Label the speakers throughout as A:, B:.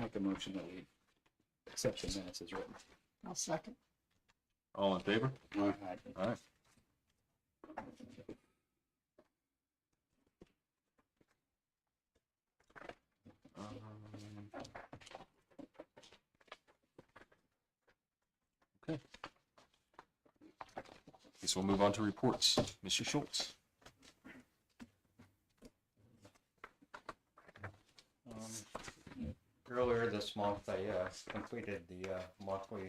A: make a motion that we accept the minutes as written.
B: I'll second.
C: All in favor?
A: All
C: All right. Um, Okay. Guess we'll move on to reports. Mr. Schultz.
D: Um, Earlier this month, I uh, completed the uh, monthly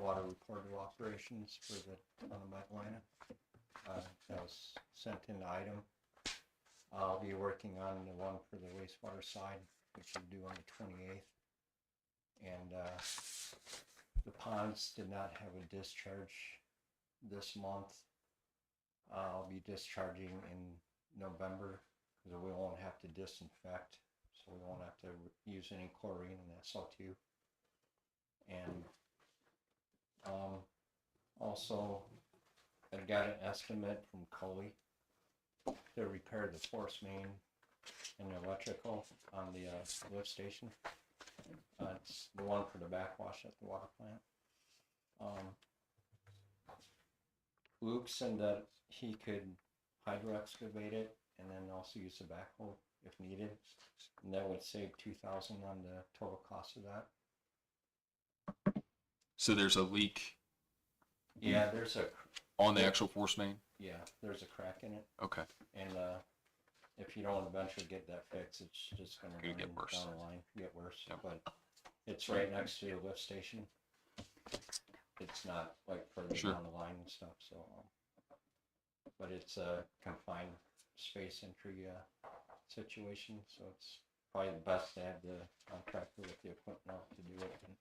D: water report of operations for the town of Medalina. Uh, That was sent in item. I'll be working on the one for the wastewater side, which is due on the 28th. And uh, the ponds did not have a discharge this month. Uh, I'll be discharging in November, because we won't have to disinfect so we won't have to re- use any chlorine and SO2. And um, also, I got an estimate from Coley to repair the force main and the electrical on the uh, lift station. Uh, it's the one for the backwash at the water plant. Um, Luke said that he could hydro excavate it and then also use the backhoe if needed. And that would save two thousand on the total cost of that.
C: So there's a leak
D: Yeah, there's a cr-
C: on the actual force main?
D: yeah, there's a crack in it,
C: Okay.
D: and uh, if you don't eventually get that fixed, it's just gonna
C: It'll get
D: run
C: worse.
D: down the line, get worse.
C: Yep.
D: But it's right next to the lift station. It's not like further
C: Sure.
D: down the line and stuff. So, um, but it's a confined space entry uh, situation, so it's probably best to have the contractor with the equipment out to do it. And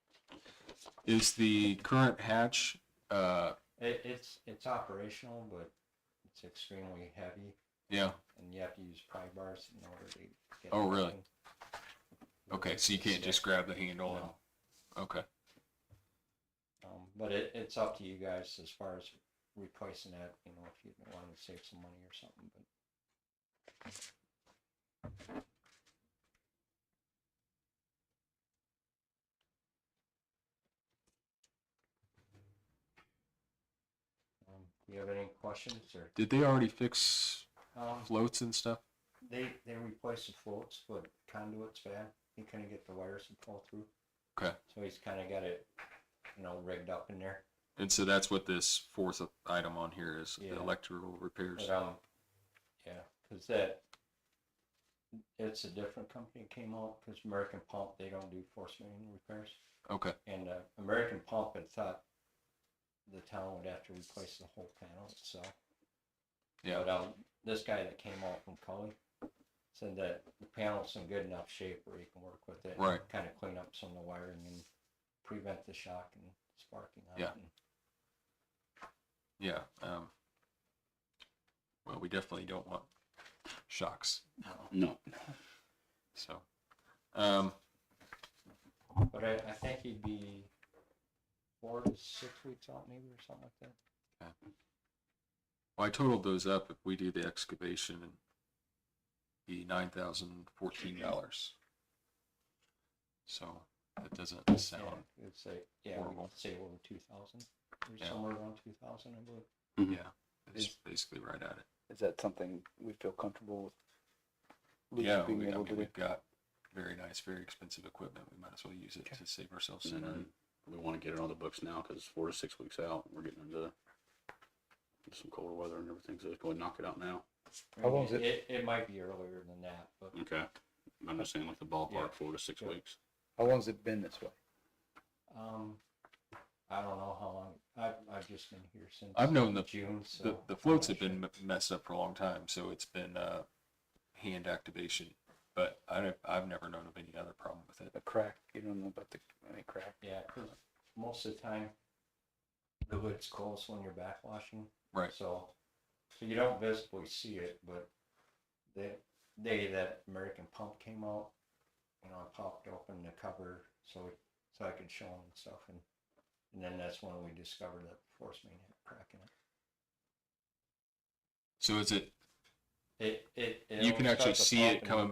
C: Is the current hatch, uh,
D: It, it's, it's operational, but it's extremely heavy
C: yeah,
D: and you have to use pry bars in order to get.
C: Oh,
D: it
C: really?
D: open.
C: okay, so you can't just grab the handle
D: No.
C: and, okay.
D: Um, but it, it's up to you guys as far as replacing that, you know, if you want to save some money or something, but. Um, Do you have any questions or?
C: Did they already fix
D: Um,
C: floats and stuff?
D: They they replaced the floats, but conduit's bad. He couldn't get the wires to pull through.
C: Okay.
D: So he's kind of got it, you know, rigged up in there.
C: And so that's what this fourth item on here is,
D: Yeah.
C: the electrical repairs.
D: But um, yeah, because that it's a different company came out because American Pump they don't do force main repairs,
C: Okay,
D: and uh, American Pump had thought the town would have to replace the whole panel itself.
C: yeah,
D: But um, this guy that came out from Cully said that the panel's in good enough shape where you can work with it.
C: Right.
D: Kind of clean up some of the wiring and prevent the shock and sparking on
C: Yeah.
D: it. and-
C: yeah. Um, well, we definitely don't want shocks,
A: No.
C: so. Um,
D: um, But I, I think he'd be four to six weeks out maybe or something like that.
C: well, I totaled those up. If we do the excavation, it'd be nine thousand fourteen dollars. So that doesn't sound,
D: Yeah, It's like, yeah,
C: Horrible.
D: we'd say over two thousand or
C: Yeah.
D: somewhere around two thousand, I believe.
C: yeah, it's
A: It's-
C: basically right at it.
A: Is that something we feel comfortable with? Luke
C: Yeah,
A: Being
C: we, I
A: able
C: mean,
A: to do?
C: we've got very nice, very expensive equipment. We might as well use it to save ourselves
A: Mm-hmm.
C: some money.
E: And uh, we want to get it on the books now because it's four to six weeks out. We're getting into some colder weather and everything, so let's go and knock it out now.
D: I
B: How
D: mean,
B: long's it-
D: It, it might be earlier than that, but
E: Okay. I'm just saying like the ballpark,
D: Yeah.
E: four to six
D: Yeah.
E: weeks.
A: How long's it been this way?
D: um, I don't know how long, I've, I've just been here since.
C: I've known the-
D: June, so.
C: The, the
D: I'm
C: floats have
D: not
C: been
D: sure.
C: m- messed up for a long time, so it's been uh, hand activation. But I don't, I've never known of any other problem with it.
A: The crack, you don't know about the, any crack?
D: Yeah, 'cause most of the time, the hood's closed when you're backwashing.
C: Right.
D: So, so you don't visibly see it, but the day that American Pump came out, you know, I popped open the cover so so I could show them and stuff, and and then that's when we discovered that force main had a crack in it.
C: So is it?
D: It it.
C: You can
D: it'll
C: actually
D: start to
C: see it
D: pop and
C: coming